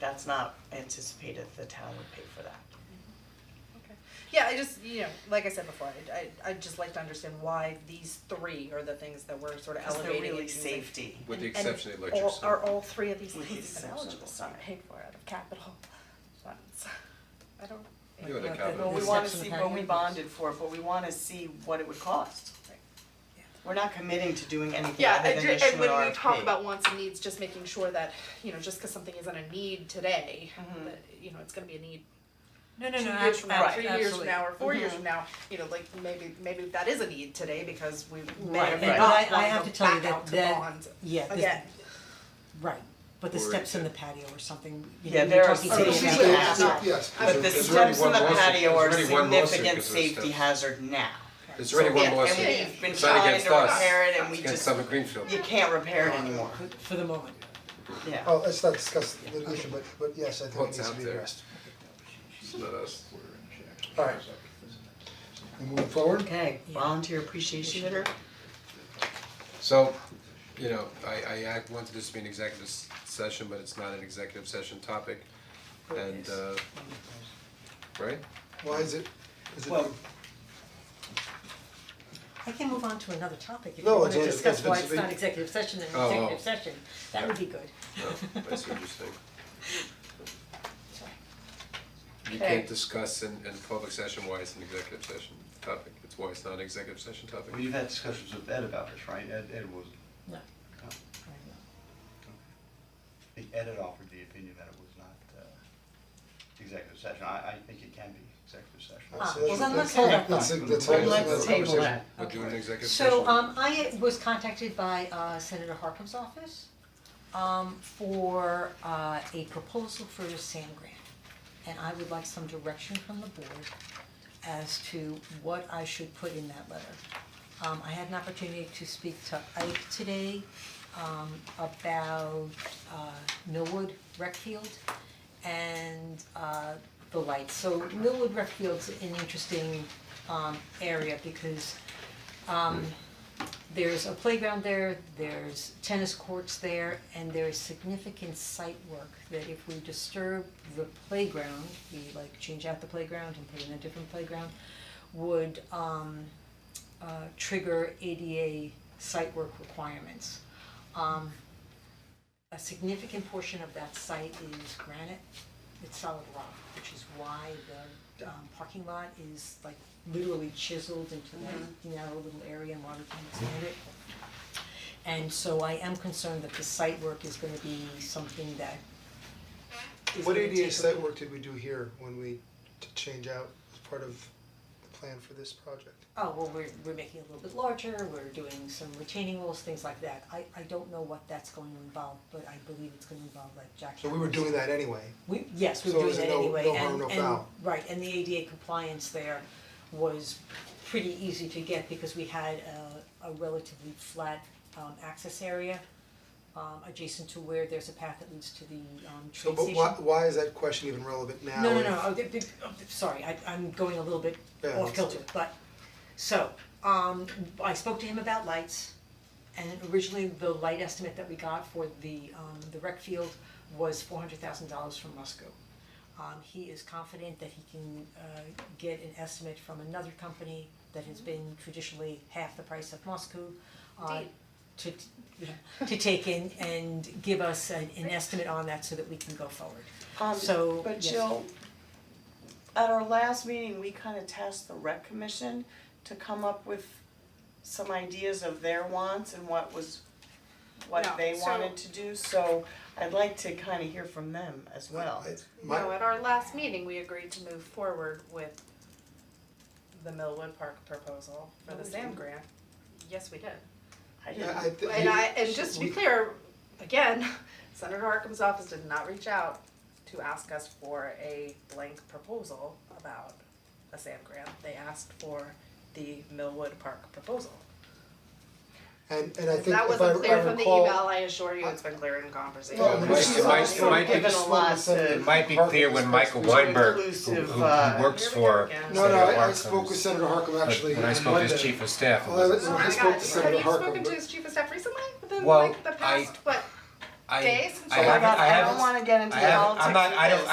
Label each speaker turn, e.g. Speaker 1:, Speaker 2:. Speaker 1: that's not anticipated, the town would pay for that.
Speaker 2: Okay. Yeah, I just, you know, like I said before, I I I'd just like to understand why these three are the things that we're sort of
Speaker 1: Because they're
Speaker 2: elevating.
Speaker 1: really
Speaker 2: and things like-
Speaker 1: safety.
Speaker 3: With the
Speaker 2: and-
Speaker 3: exception of
Speaker 2: and
Speaker 3: electric
Speaker 2: all-
Speaker 3: stove.
Speaker 2: Are all three of these
Speaker 1: With the
Speaker 2: things
Speaker 1: exception
Speaker 2: even
Speaker 1: of
Speaker 2: eligible,
Speaker 1: the
Speaker 2: to be
Speaker 1: side.
Speaker 2: paid for out of capital funds? I don't.
Speaker 3: You had a
Speaker 2: Look,
Speaker 3: capital.
Speaker 2: the-
Speaker 1: Well, we
Speaker 3: With
Speaker 1: wanna
Speaker 4: exception
Speaker 1: see
Speaker 4: of
Speaker 1: what we
Speaker 4: valuables.
Speaker 1: bonded for, but we wanna see what it would cost.
Speaker 2: Right. Yeah.
Speaker 1: We're not committing to doing anything
Speaker 2: Yeah,
Speaker 1: other
Speaker 2: and
Speaker 1: than
Speaker 2: ju-
Speaker 1: issue
Speaker 2: and
Speaker 1: an
Speaker 2: when we talk
Speaker 1: RFP.
Speaker 2: about wants and needs, just making sure that, you know, just cause something isn't a need today,
Speaker 1: Mhm.
Speaker 2: that, you know, it's gonna be a need
Speaker 4: No, no,
Speaker 2: two
Speaker 4: no,
Speaker 2: years from now, three
Speaker 4: absolutely.
Speaker 2: years from now, or four years
Speaker 1: Mhm.
Speaker 2: from now, you know, like maybe, maybe that is a need today because we may
Speaker 1: Right,
Speaker 2: or may
Speaker 1: right.
Speaker 2: not
Speaker 4: But I- I
Speaker 2: wanna
Speaker 4: have
Speaker 2: go
Speaker 4: to tell you
Speaker 2: back
Speaker 4: that-
Speaker 2: out to
Speaker 4: that-
Speaker 2: bond
Speaker 4: Yeah, this-
Speaker 2: again.
Speaker 4: right, but the
Speaker 3: Or
Speaker 4: steps in the
Speaker 3: it-
Speaker 4: patio or something, you know,
Speaker 1: Yeah,
Speaker 4: you're
Speaker 1: there are
Speaker 4: talking
Speaker 1: some-
Speaker 4: to
Speaker 1: Oh,
Speaker 4: me
Speaker 1: she's
Speaker 4: about
Speaker 1: like,
Speaker 4: that.
Speaker 1: Yeah.
Speaker 5: Yes.
Speaker 1: But the
Speaker 3: There's already
Speaker 1: steps in
Speaker 3: one
Speaker 1: the
Speaker 3: lawsuit-
Speaker 1: patio are
Speaker 3: there's already one lawsuit
Speaker 1: significant
Speaker 3: because of those
Speaker 1: safety
Speaker 3: steps.
Speaker 1: hazard now.
Speaker 3: There's already
Speaker 1: Yeah,
Speaker 3: one
Speaker 1: and
Speaker 3: lawsuit,
Speaker 1: we've been
Speaker 3: it's not
Speaker 1: trying
Speaker 3: against
Speaker 1: to
Speaker 3: us,
Speaker 1: repair it and we
Speaker 3: it's against
Speaker 1: just-
Speaker 3: Summit Greenfield.
Speaker 1: You can't repair it anymore,
Speaker 4: For- For the moment.
Speaker 1: yeah.
Speaker 5: Oh, let's not discuss litigation, but but yes, I think it
Speaker 3: What's
Speaker 5: needs to
Speaker 3: out
Speaker 5: be
Speaker 3: there?
Speaker 5: addressed.
Speaker 3: It's not us.
Speaker 5: Alright. We moving forward?
Speaker 1: Okay, volunteer appreciation dinner?
Speaker 3: So, you know, I I act- wanted this to be an executive s- session, but it's not an executive session topic. And uh, right?
Speaker 5: Why is it, is it?
Speaker 1: Well,
Speaker 4: I can move on to another topic if you
Speaker 5: No,
Speaker 4: wanna
Speaker 5: it's- it's-
Speaker 4: discuss
Speaker 5: it's-
Speaker 4: why
Speaker 5: it's
Speaker 4: it's not
Speaker 5: been-
Speaker 4: executive session and
Speaker 3: Oh,
Speaker 4: executive
Speaker 3: oh.
Speaker 4: session, that would be good.
Speaker 5: Oh,
Speaker 3: No, that's interesting. You can't discuss in in public session why it's an executive session topic, it's why it's not an executive session topic.
Speaker 6: Well, you've had discussions with Ed about this, right? Ed, Ed was,
Speaker 4: No.
Speaker 6: no, I think Ed had offered the opinion that it was not, uh, executive session. I, I think it can be executive session.
Speaker 4: Ah,
Speaker 5: So
Speaker 4: well,
Speaker 5: that's-
Speaker 4: then let's
Speaker 5: that's-
Speaker 4: hold that
Speaker 5: that's-
Speaker 6: thought.
Speaker 5: that's-
Speaker 3: Well,
Speaker 5: that's-
Speaker 3: let's
Speaker 5: that's-
Speaker 4: table that.
Speaker 3: We'll do an executive session.
Speaker 4: So um I was contacted by uh Senator Harkin's office um for uh a proposal for a SAM grant. And I would like some direction from the board as to what I should put in that letter. Um I had an opportunity to speak to Ike today um about uh Millwood Rec Field and uh the lights. So Millwood Rec Field's an interesting um area because um there's a playground there, there's tennis courts there, and there is significant site work that if we disturb the playground, we like change out the playground and put in a different playground, would um uh trigger ADA site work requirements. Um a significant portion of that site is granite, it's solid rock, which is why the um parking lot is like literally chiseled into that narrow little area and water can expand it. And so I am concerned that the site work is gonna be something that is
Speaker 5: What
Speaker 4: gonna take
Speaker 5: ADA
Speaker 4: a-
Speaker 5: site work did we do here when we t- change out as part of the plan for this project?
Speaker 4: Oh, well, we're we're making it a little bit larger, we're doing some retaining walls, things like that. I I don't know what that's going to involve, but I believe it's gonna involve like jackhammers.
Speaker 5: So we were doing that anyway.
Speaker 4: We, yes, we
Speaker 5: So
Speaker 4: were doing
Speaker 5: is
Speaker 4: that
Speaker 5: it no-
Speaker 4: anyway,
Speaker 5: no harm,
Speaker 4: and
Speaker 5: no
Speaker 4: and,
Speaker 5: foul?
Speaker 4: right, and the ADA compliance there was pretty easy to get because we had a a relatively flat um access area um adjacent to where there's a path that leads to the um train
Speaker 5: So, but
Speaker 4: station.
Speaker 5: why, why is that question even relevant now?
Speaker 4: No, no,
Speaker 5: if-
Speaker 4: no, oh, the- the- oh, the- sorry, I I'm going a little bit
Speaker 5: Yeah,
Speaker 4: off
Speaker 5: that's-
Speaker 4: kilter, but, so, um, I spoke to him about lights. And originally, the light estimate that we got for the um the rec field was four hundred thousand dollars from Musco. Um, he is confident that he can uh get an estimate from another company that has been traditionally half the price of Musco. Uh, to to take in and give us an an estimate on that so that we can go forward.
Speaker 1: Um,
Speaker 4: So,
Speaker 1: But
Speaker 4: yes.
Speaker 1: Jill, at our last meeting, we kind of tasked the rec commission to come up with some ideas of their wants and what was, what
Speaker 2: No,
Speaker 1: they
Speaker 2: so-
Speaker 1: wanted to do, so I'd like to kind of hear from them as well.
Speaker 5: I- my-
Speaker 2: No, at our last meeting, we agreed to move forward with the Millwood Park proposal for the SAM grant. Yes, we did.
Speaker 1: I
Speaker 5: Yeah,
Speaker 1: didn't,
Speaker 5: I thi-
Speaker 2: And I, and just to be
Speaker 5: we-
Speaker 2: clear, again, Senator Harkin's office did not reach out to ask us for a blank proposal about a SAM grant. They asked for the Millwood Park proposal.
Speaker 5: And and I
Speaker 2: If
Speaker 5: think
Speaker 2: that
Speaker 5: if I
Speaker 2: wasn't
Speaker 5: I
Speaker 2: clear from the
Speaker 5: recall.
Speaker 2: email, I assure you, it's been clear in conversation. Oh
Speaker 3: Well, it might- it might- it might be-
Speaker 5: Just wanted to send
Speaker 1: It
Speaker 7: might be clear when Michael
Speaker 5: Harkin-
Speaker 7: Weinberg, who,
Speaker 1: Inclusive,
Speaker 7: who-
Speaker 1: uh,
Speaker 7: who works
Speaker 2: Here we
Speaker 7: for
Speaker 2: go again.
Speaker 5: No, no,
Speaker 7: Senator
Speaker 5: I I
Speaker 7: Harkin,
Speaker 5: spoke with Senator Harkin
Speaker 7: but
Speaker 5: actually
Speaker 7: When I
Speaker 5: on
Speaker 7: spoke to his
Speaker 5: Monday.
Speaker 7: chief of staff, it
Speaker 5: Well, I
Speaker 7: was-
Speaker 5: was-
Speaker 2: Oh
Speaker 5: I
Speaker 2: my
Speaker 5: spoke
Speaker 2: God,
Speaker 5: to
Speaker 2: have
Speaker 5: Senator
Speaker 2: you
Speaker 5: Harkin,
Speaker 2: spoken to
Speaker 5: but-
Speaker 2: his chief of staff recently? Within
Speaker 7: Well,
Speaker 2: like the past,
Speaker 7: I-
Speaker 2: what,
Speaker 1: I,
Speaker 8: days since
Speaker 1: I
Speaker 8: you
Speaker 7: Oh my
Speaker 1: haven't-
Speaker 7: god,
Speaker 1: I
Speaker 7: I don't
Speaker 1: haven't-
Speaker 7: wanna get into
Speaker 1: I
Speaker 7: the
Speaker 1: haven't-
Speaker 7: politics
Speaker 1: I'm not-
Speaker 7: of
Speaker 1: I don't-
Speaker 7: this.